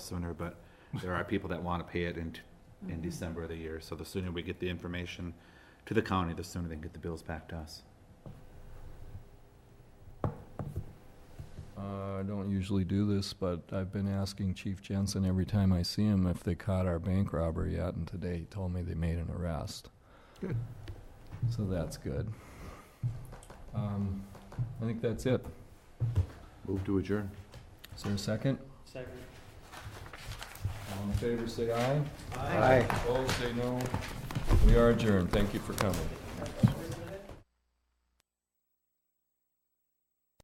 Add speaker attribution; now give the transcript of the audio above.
Speaker 1: sooner, but there are people that want to pay it in, in December of the year. So the sooner we get the information to the county, the sooner they can get the bills back to us.
Speaker 2: Uh, I don't usually do this, but I've been asking Chief Jensen every time I see him if they caught our bank robber yet, and today he told me they made an arrest.
Speaker 3: Good.
Speaker 2: So that's good. Um, I think that's it.
Speaker 1: Move to adjourn.
Speaker 2: Is there a second?
Speaker 3: Second.
Speaker 2: All in favor, say aye. Opposed, say no. We are adjourned. Thank you for coming.